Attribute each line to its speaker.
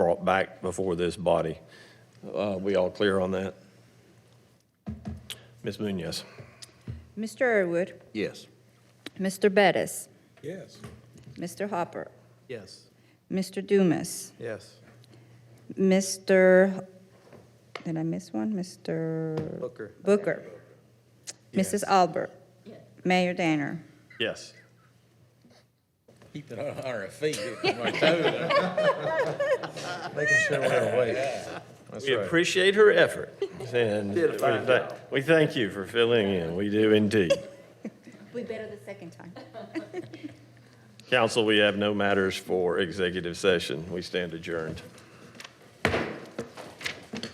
Speaker 1: brought back before this body. Uh, We all clear on that? Ms. Munoz?
Speaker 2: Mr. Irwood,
Speaker 3: Yes.
Speaker 2: Mr. Bettis,
Speaker 4: Yes.
Speaker 2: Mr. Hopper,
Speaker 3: Yes.
Speaker 2: Mr. Dumas,
Speaker 3: Yes.
Speaker 2: Mr., did I miss one? Mr.
Speaker 3: Booker.
Speaker 2: Booker. Mrs. Albert. Mayor Danner.
Speaker 1: Yes.
Speaker 3: Keep it on our feet.
Speaker 4: Making sure we're awake. That's
Speaker 1: We
Speaker 4: right.
Speaker 1: appreciate her effort, and we
Speaker 3: Did a fine
Speaker 1: thank- we thank you for filling in. We do indeed.
Speaker 2: We better the second time.
Speaker 1: Council, we have no matters for executive session. We stand adjourned.